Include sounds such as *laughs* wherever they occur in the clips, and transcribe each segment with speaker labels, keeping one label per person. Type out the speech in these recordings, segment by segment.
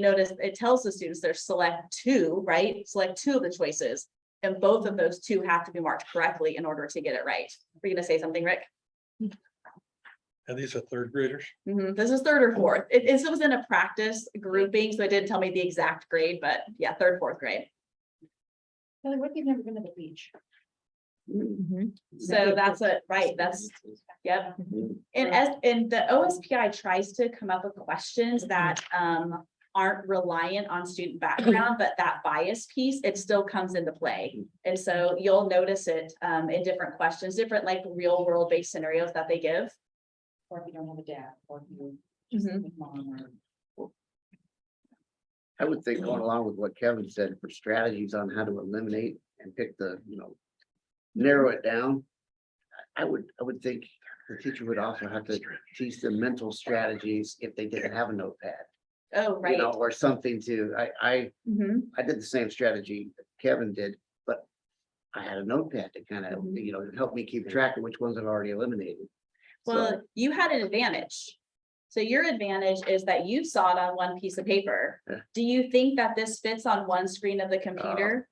Speaker 1: notice it tells the students there's select two, right? Select two of the choices. And both of those two have to be marked correctly in order to get it right. Were you gonna say something, Rick?
Speaker 2: And these are third graders.
Speaker 1: Mhm, This is third or fourth. It is, it was in a practice grouping, so it didn't tell me the exact grade, but yeah, third, fourth grade.
Speaker 3: Kelly, what if you've never been to the beach?
Speaker 4: Mm-hmm.
Speaker 1: So that's it, right? That's, yep. And as, and the OSPI tries to come up with questions
Speaker 5: Mm-hmm.
Speaker 1: that um aren't reliant on student
Speaker 5: *clears throat*
Speaker 1: background, but that bias piece, it still comes into
Speaker 5: Mm-hmm.
Speaker 1: play. And so you'll notice it um in different questions, different like real world based scenarios that they give.
Speaker 3: Or if you don't have a dad, or if you just
Speaker 5: Mm-hmm.
Speaker 4: Mm.
Speaker 1: Mhm.
Speaker 3: with mom or.
Speaker 5: I would think going along with what Kevin said for strategies on how to eliminate and pick the, you know, narrow it down. I I would, I would think the teacher would also have to teach them mental strategies if they didn't have a notepad.
Speaker 1: Oh,
Speaker 5: You
Speaker 1: right.
Speaker 5: know, or something to, I, I,
Speaker 1: Mhm.
Speaker 5: I did the same strategy that Kevin did, but I had a notepad to kind of,
Speaker 1: Mhm.
Speaker 5: you know, help me keep track of which ones I've already eliminated. So,
Speaker 1: Well, you had an advantage. So your advantage is that you saw it on one piece of paper.
Speaker 5: Yeah.
Speaker 1: Do you think that this fits on one screen of the computer?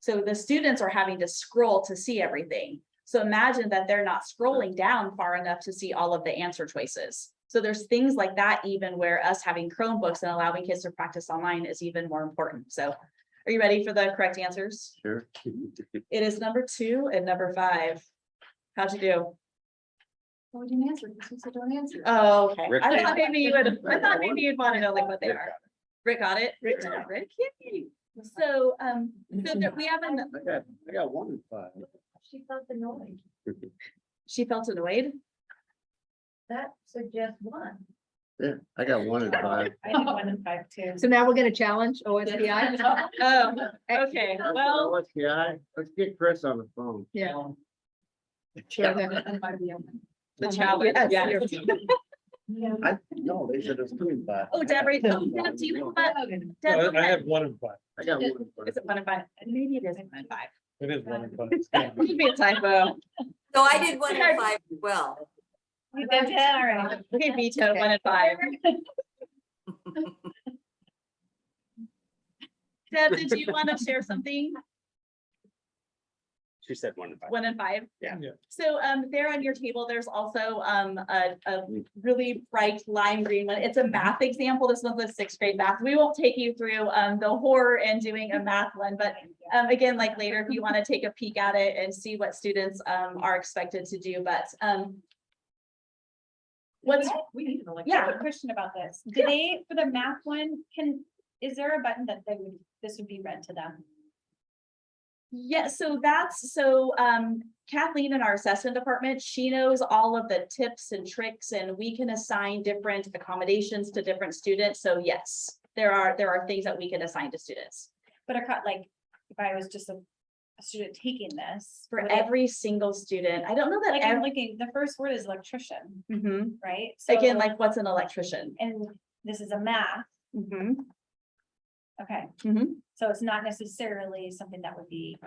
Speaker 1: So the students are having to scroll to see everything. So imagine that they're not scrolling down far enough to see all of the answer choices. So there's things like that, even where us having Chromebooks and allowing kids to practice online is even more important. So are you ready for the correct answers?
Speaker 5: Sure. *laughs*
Speaker 1: It is number two and number five. How'd you do?
Speaker 3: Well, we didn't answer, because we said don't answer.
Speaker 4: Uh,
Speaker 1: Oh, okay.
Speaker 5: Rick
Speaker 1: I
Speaker 5: did.
Speaker 1: thought maybe you would, I thought maybe you'd want to know like what they are. Rick got it. Rick,
Speaker 5: Rick got it.
Speaker 1: Rick, yay. So, um, so there- we haven't,
Speaker 5: I got, I got one in five. *laughs*
Speaker 3: She felt the noise.
Speaker 1: she felt annoyed.
Speaker 3: That suggests one.
Speaker 5: Yeah, I got
Speaker 1: *laughs*
Speaker 5: one in five.
Speaker 3: I did one in five too.
Speaker 6: So now we're gonna challenge
Speaker 3: *laughs*
Speaker 6: OSBI.
Speaker 1: Oh, okay. Well,
Speaker 5: Let's get, I- let's get Chris on the phone.
Speaker 6: Yeah.
Speaker 1: the challenge,
Speaker 6: Yes,
Speaker 1: yeah.
Speaker 5: I, no, they said it's coming back.
Speaker 1: Oh,
Speaker 5: *laughs*
Speaker 1: Deborah, oh, yeah, do you have one?
Speaker 2: I
Speaker 1: Deb,
Speaker 2: I have one in five.
Speaker 5: I got one. for
Speaker 1: Is it one and five? Maybe it isn't one and five.
Speaker 2: It is one in five.
Speaker 1: It Could be a typo.
Speaker 7: So I did one in five as well.
Speaker 3: You did that, all right.
Speaker 1: Okay, veto one and *laughs* five. Deb, did you want to share something?
Speaker 8: She said one to five.
Speaker 1: One and five?
Speaker 8: Yeah.
Speaker 2: Yeah.
Speaker 1: So um there on your table, there's also um a a really bright lime green one. It's a math example. This one's a sixth grade math. We won't take you through um the horror in doing a math one, but um again, like later, if you want to take a peek at it and see what students um are expected to do, but um what's,
Speaker 3: We need to like.
Speaker 4: Yeah, a question about this. Do they, for the math one, can, is there a button that they would, this would be read to them?
Speaker 1: Yeah, so that's, so um Kathleen in our assessment department, she knows all of the tips and tricks and we can assign different accommodations to different students. So yes, there are, there are things that we can assign to students.
Speaker 4: But a cut, like, if I was just a a student taking this.
Speaker 1: For
Speaker 4: would it-
Speaker 1: every single student, I don't know that
Speaker 4: Like, I'm
Speaker 1: every,
Speaker 4: looking, the first word is electrician,
Speaker 1: Mhm.
Speaker 4: right?
Speaker 1: again,
Speaker 4: So-
Speaker 1: like what's an electrician?
Speaker 4: And this is a math,
Speaker 1: Mhm.
Speaker 4: okay?
Speaker 1: Mhm.
Speaker 4: So it's not necessarily something that would be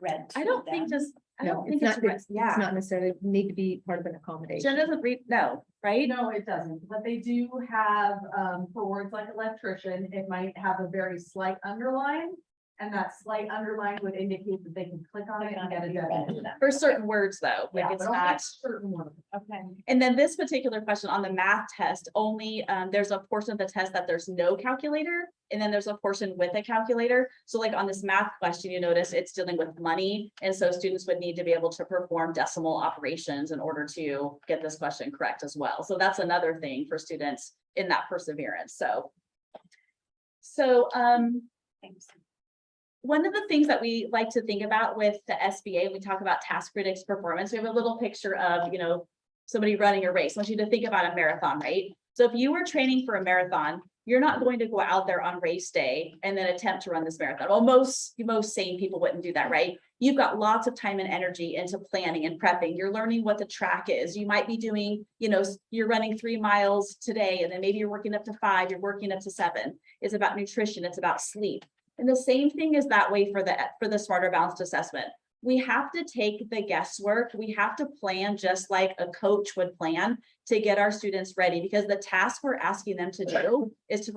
Speaker 4: read.
Speaker 1: I
Speaker 4: to
Speaker 1: don't think
Speaker 4: them.
Speaker 1: just, I
Speaker 6: No,
Speaker 1: don't
Speaker 6: it's
Speaker 1: think it's,
Speaker 6: not,
Speaker 1: re-
Speaker 6: it's it's
Speaker 1: yeah,
Speaker 6: not necessarily need to be part of an
Speaker 1: Jen
Speaker 6: accommodation.
Speaker 1: doesn't read, no, right?
Speaker 9: No, it doesn't, but they do have, um, for words like electrician, it might have a very slight underline. And that slight underline would indicate that they can click on it
Speaker 4: Click
Speaker 9: and
Speaker 4: on it
Speaker 9: get
Speaker 4: and
Speaker 9: a
Speaker 4: be read to
Speaker 9: definition.
Speaker 4: them.
Speaker 1: For certain words though, like
Speaker 9: Yeah,
Speaker 1: it's
Speaker 9: but only
Speaker 1: not.
Speaker 9: Certain ones.
Speaker 4: Okay,
Speaker 1: And then this particular question on the math test, only, um, there's a portion of the test that there's no calculator. And then there's a portion with a calculator. So like on this math question, you notice it's dealing with money. And so students would need to be able to perform decimal operations in order to get this question correct as well. So that's another thing for students in that perseverance, so. So, um,
Speaker 4: thanks.
Speaker 1: one of the things that we like to think about with the SBA, we talk about task critics performance, we have a little picture of, you know, somebody running a race, I want you to think about a marathon, right? So if you were training for a marathon, you're not going to go out there on race day and then attempt to run this marathon. Well, most, most sane people wouldn't do that, right? You've got lots of time and energy into planning and prepping. You're learning what the track is. You might be doing, you know, s- you're running three miles today and then maybe you're working up to five, you're working up to seven. It's about nutrition, it's about sleep. And the same thing is that way for the, for the smarter balanced assessment. we have to take the guesswork. We have to plan just like a coach would plan to get our students ready because the task we're asking them to do is to